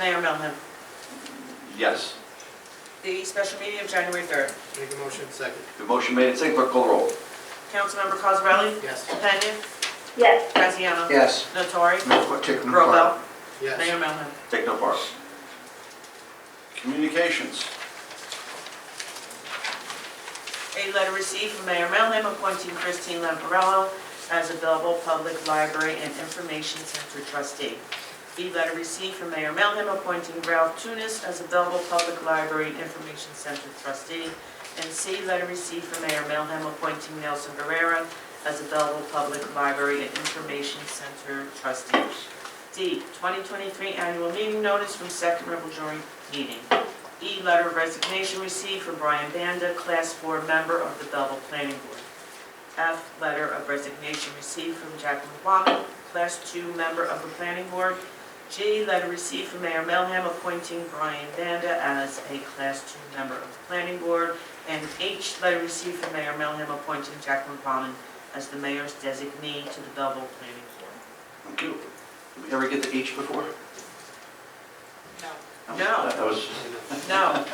Mayor Melham, Yes. the special meeting of January 3rd. Make a motion, second. The motion made and seconded, clerk call the roll. Councilmember Cosarelli? Yes. Patton? Yes, Graziano? Yes. Natori? No, take no part. Robel? Mayor Yes. Melham. Take no part. Communications. A letter received from Mayor Melham appointing Christine Lamparello as a Belleville Public Library and Information Center trustee. B letter received from Mayor Melham appointing Ralph Tunis as a Belleville Public Library and Information Center trustee. And C letter received from Mayor Melham appointing Nelson Guerrera as a Belleville Public Library and Information Center trustee. D, 2023 annual meeting notice from Second Rebel Jury meeting. E, letter of resignation received from Brian Banda, Class 4 member of the Belleville Planning Board. F, letter of resignation received from Jacqueline Waddle, Class 2 member of the Planning Board. G, letter received from Mayor Melham appointing Brian Banda as a Class 2 member of the Planning Board. And H, letter received from Mayor Melham appointing Jacqueline Waddle as the mayor's designee to the Belleville Planning Board. Thank you. Did we ever get to H before? No. That was, No,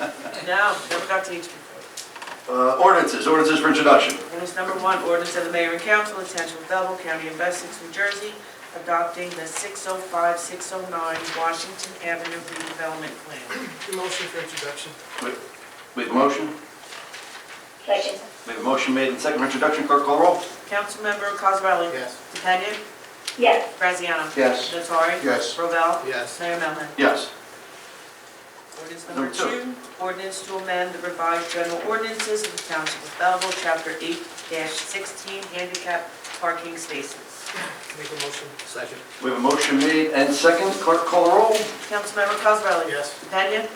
no, never got to each before. uh, ordinances, ordinances for introduction. Ordinance number one, ordinance of the mayor and council of the township of Belleville, county of Essex, New Jersey, adopting the 605, 609 Washington Avenue redevelopment plan. Make a motion for introduction. We have a motion? second. We have a motion made and seconded for introduction, clerk call the roll. Councilmember Cosarelli? Yes. Dependent? Yes, Graziano? Yes. Natori? Yes. Robel? Yes. Mayor Melham? Yes. Ordinance Number number two, ordinance to amend the revised general ordinances of the township of Belleville, chapter 8-16, handicap parking spaces. Make a motion, second. We have a motion made and seconded, clerk call the roll. Councilmember Cosarelli? Yes. Dependent?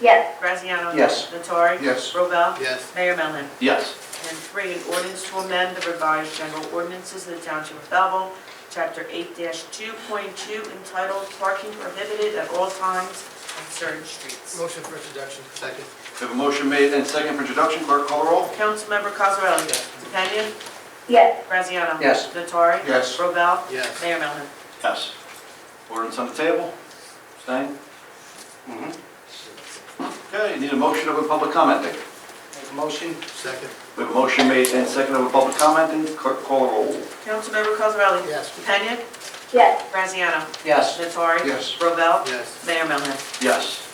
yes, Graziano? Yes. Natori? Yes. Robel? Yes. Mayor Melham. Yes. And three, an ordinance to amend the revised general ordinances of the Township of Belleville, Chapter 8-2.2 entitled Parking Prohibited at All Times on Certain Streets. Motion for introduction, second. We have a motion made and seconded for introduction, clerk call the roll. Councilmember Cosarelli? Yes. DePena? yes, Graziano? Yes. Natori? Yes. Robel? Yes. Mayor Melham. Yes. Ordinance on the table. Stein? Mhm. Okay, need a motion of a public commenting. Make a motion? Second. We have a motion made and seconded with public comment, and clerk call the roll. Councilmember Cosarelli? Yes. DePena? yes, Graziano? Yes. Natori? Yes. Robel? Yes. Mayor Melham. Yes.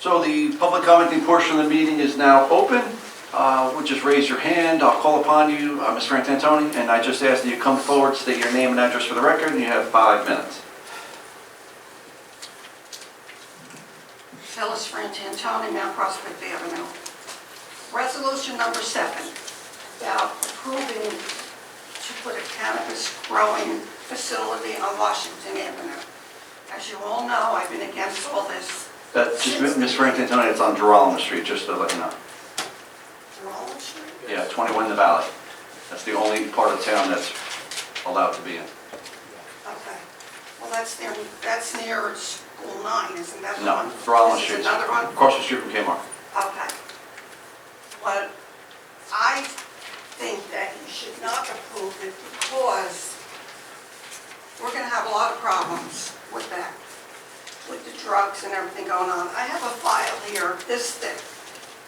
So the public commenting portion of the meeting is now open. Uh, Would just raise your hand, I'll call upon you, uh, Ms. Frantantoni, and I just ask that you come forward, state your name and address for the record, and you have five minutes. Phyllis Frantantoni, Mount Prospect Avenue. Resolution number seven, about approving to put a cannabis growing facility on Washington Avenue. As you all know, I've been against all this. That's just, Ms. Frantantoni, it's on Geralamo Street, just to let you know. Roll Street. Yeah, 21 the Valley. That's the only part of town that's allowed to be in. Okay. Well, that's near, that's near School 9, isn't that the one? No, Geralamo This is Street. another one? Across the street from Kmart. Okay. Well, I think that you should not approve it because we're gonna have a lot of problems with that, with the drugs and everything going on. I have a file here, this thick,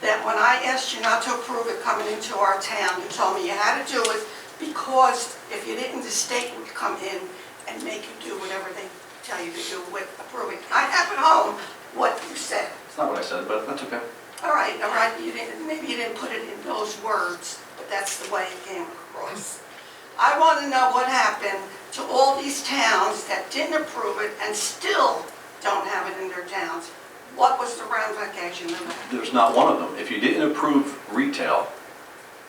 that when I asked you not to approve it coming into our town, you told me you had to do it because if you didn't, the state would come in and make you do whatever they tell you to do with approving. I have at home what you said. That's not what I said, but that's okay. All right, all right, you didn't, maybe you didn't put it in those words, but that's the way it came across. I want to know what happened to all these towns that didn't approve it and still don't have it in their towns. What was the ramification of that? There's not one of them. If you didn't approve retail,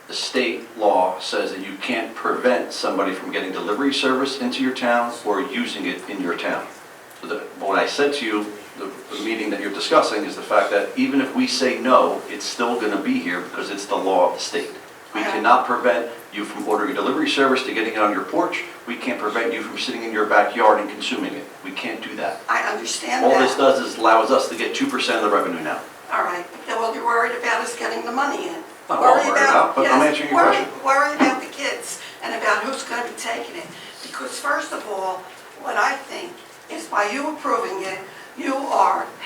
the state law says that you can't prevent somebody from getting delivery service into your town or using it in your town. So the- What I said to you, the the meeting that you're discussing, is the fact that even if we say no, it's still going to be here because it's the law of the state. We cannot prevent you from ordering a delivery service to getting it on your porch. We can't prevent you from sitting in your backyard and consuming it. We can't do that. I understand that. All this does is allows us to get 2% of the revenue now. All right, then what you're worried about is getting the money in. Not all Worry worried about, but I'm yes, answering your worry- question. Worry about the kids and about who's going to be taking it. Because first of all, what I think is by you approving it, You are